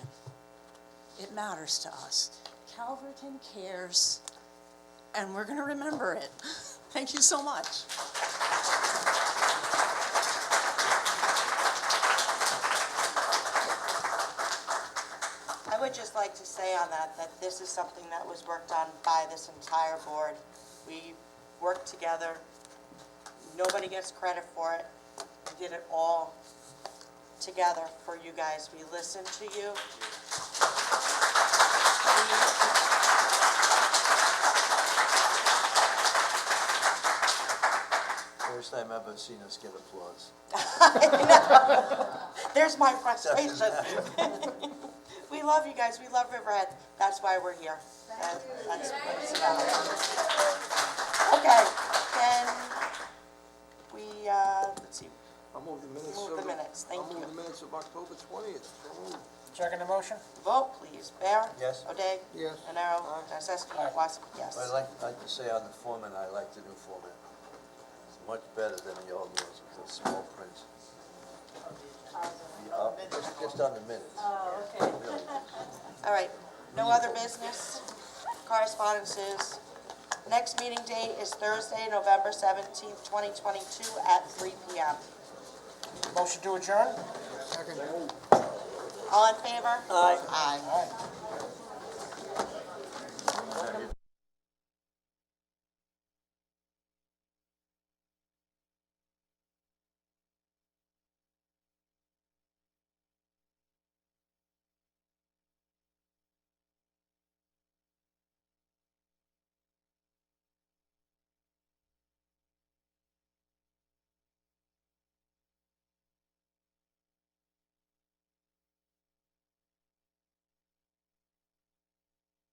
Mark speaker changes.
Speaker 1: It matters to us. Calverton cares, and we're going to remember it. Thank you so much.
Speaker 2: I would just like to say on that, that this is something that was worked on by this entire board. We worked together, nobody gets credit for it. We did it all together for you guys. We listened to you.
Speaker 3: First time I've ever seen us get applause.
Speaker 2: There's my frustration. We love you guys, we love Riverhead, that's why we're here. That- That's what it's about. Okay, then we, uh, let's see,
Speaker 4: I'll move the minutes.
Speaker 2: Move
Speaker 4: of
Speaker 2: the minutes, thank
Speaker 4: I'll
Speaker 2: you.
Speaker 4: move the minutes of October twentieth.
Speaker 5: Second the motion?
Speaker 2: Vote, please. Bear?
Speaker 3: Yes.
Speaker 2: O'Day?
Speaker 4: Yes.
Speaker 2: Nenaro?
Speaker 4: Aye.
Speaker 2: Nacesky?
Speaker 5: Aye.
Speaker 2: Wassick?
Speaker 3: But I'd
Speaker 2: Yes.
Speaker 3: like, like to say on the format, I like the new format. It's much better than the old ones with the small print. The up- Just, just on the minutes. Really.
Speaker 2: All right, no other business, correspondences. Next meeting date is Thursday, November seventeenth, twenty twenty-two at three P M.
Speaker 5: Motion to adjourn?
Speaker 2: All in favor? Aye. Aye.
Speaker 5: All right.